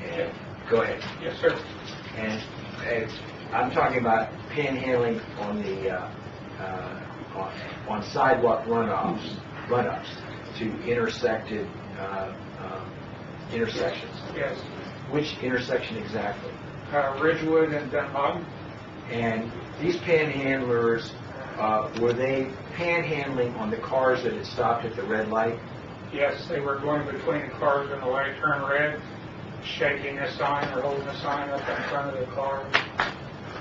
Yeah. Go ahead. Yes, sir. And uh, I'm talking about panhandling on the, uh, uh, on- on sidewalk runoffs, runups to intersected, uh, um, intersections. Yes. Which intersection exactly? Uh, Ridgewood and Dunhog. And these panhandlers, uh, were they panhandling on the cars that had stopped at the red light? Yes, they were going between the cars when the light turned red, shaking a sign or holding a sign up in front of the car.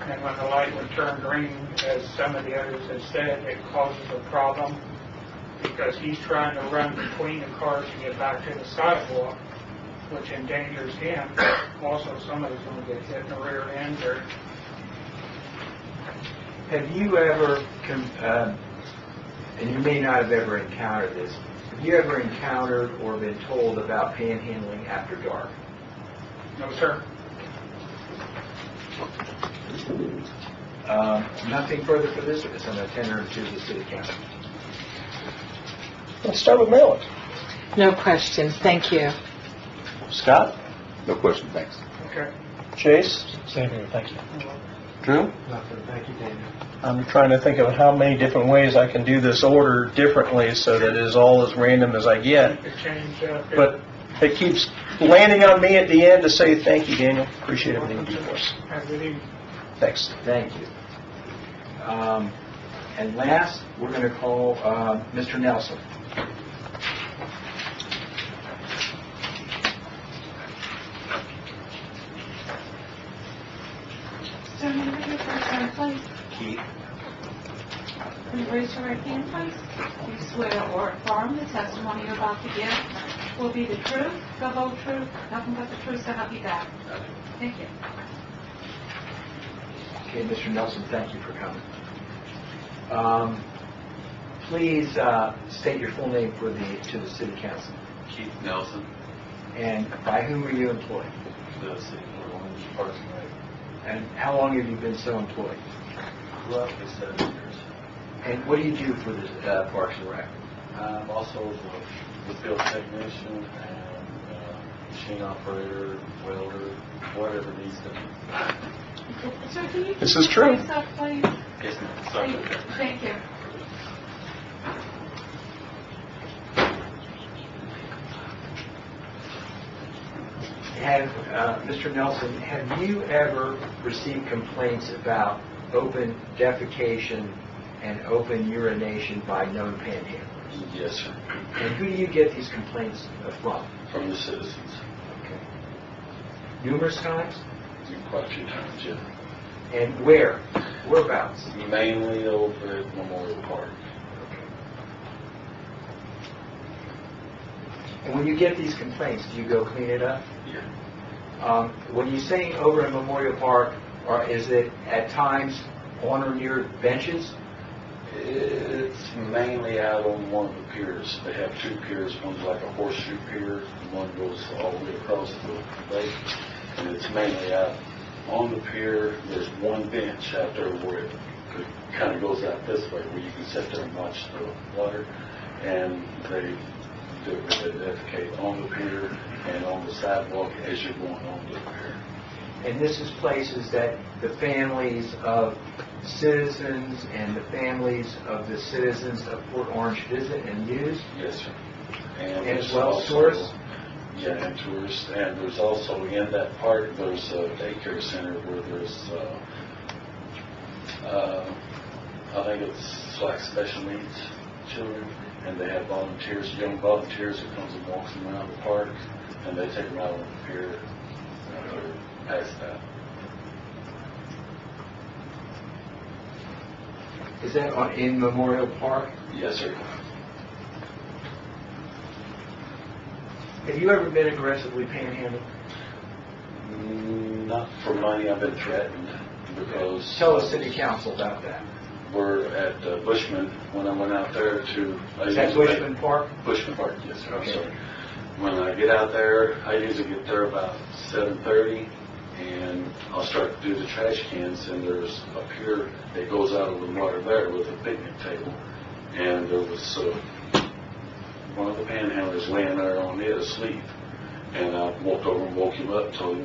And when the light would turn green, as some of the others have said, it causes a problem because he's trying to run between the cars to get back to the sidewalk, which endangers him. Also, somebody's going to get hit in the rear end or Have you ever, com- um, and you may not have ever encountered this, have you ever encountered or been told about panhandling after dark? No, sir. Um, Nothing further for this witness, I'm going to tender it to the city council. Let's start with Maryland. No questions, thank you. Scott? No question, thanks. Okay. Chase? Same here, thank you. Drew? Nothing, thank you, Daniel. I'm trying to think of how many different ways I can do this order differently so that it's all as random as I get. It changed, uh, it- But it keeps landing on me at the end to say, thank you, Daniel, appreciate everything you do for us. I believe Thanks. Thank you. Um, And last, we're going to call uh, Mr. Nelson. So I'm going to your first hand, please. Keith. Can you raise your right hand, please? You swear or affirm the testimony you're about to give will be the truth, the whole truth, nothing but the truth, so help you God. Thank you. Okay, Mr. Nelson, thank you for coming. Um, Please uh, state your full name for the, to the city council. Keith Nelson, And by whom are you employed? the city for Orange Parks and Rec. And how long have you been so employed? Roughly seven years. And what do you do for the uh, Parks and Rec? I'm um, also the field technician and uh, machine operator, welder, whatever needs to be. Sir, can you This is true. raise up, please? Yes, ma'am. Sorry. Thank you. Thank you. Have, uh, Mr. Nelson, have you ever received complaints about open defecation and open urination by known panhandlers? Yes, sir. And who do you get these complaints uh, from? From the citizens, Okay. Numerous times? quite a few times, yeah. And where? Whereabouts? Mainly over at Memorial Park. And when you get these complaints, do you go clean it up? Yeah. Um, When you say over in Memorial Park, or is it at times on or near benches? It's mainly out on one of the piers. They have two piers, one's like a horseshoe pier, and one goes all the way across the lake. And it's mainly out on the pier, there's one bench out there where it kind of goes out this way, where you can sit there and watch the water. And they do, they defecate on the pier and on the sidewalk as you're going on the pier. And this is places that the families of citizens and the families of the citizens of Port Orange visit and use? Yes, sir. And there's as well as also- tourists? Yeah, and tourists, and there's also in that park, there's a daycare center where there's, uh, uh, I think it's like special needs children, and they have volunteers, young volunteers who comes and walks them around the park, and they take them out on the pier, and they're past that. Is that on- in Memorial Park? Yes, sir. Have you ever been aggressively panhandling? Mm, Not for money, I've been threatened because. Tell the city council about that. were at uh, Bushman when I went out there to. I Is that usually- Bushman Park? Bushman Park, yes, sir, I'm Okay. sorry. When I get out there, I usually get there about seven thirty, and I'll start to do the trash cans, and there's a pier that goes out of the water there with a picnic table, and there was, uh, one of the panhandlers laying there on it asleep, and I walked over and woke him up, told him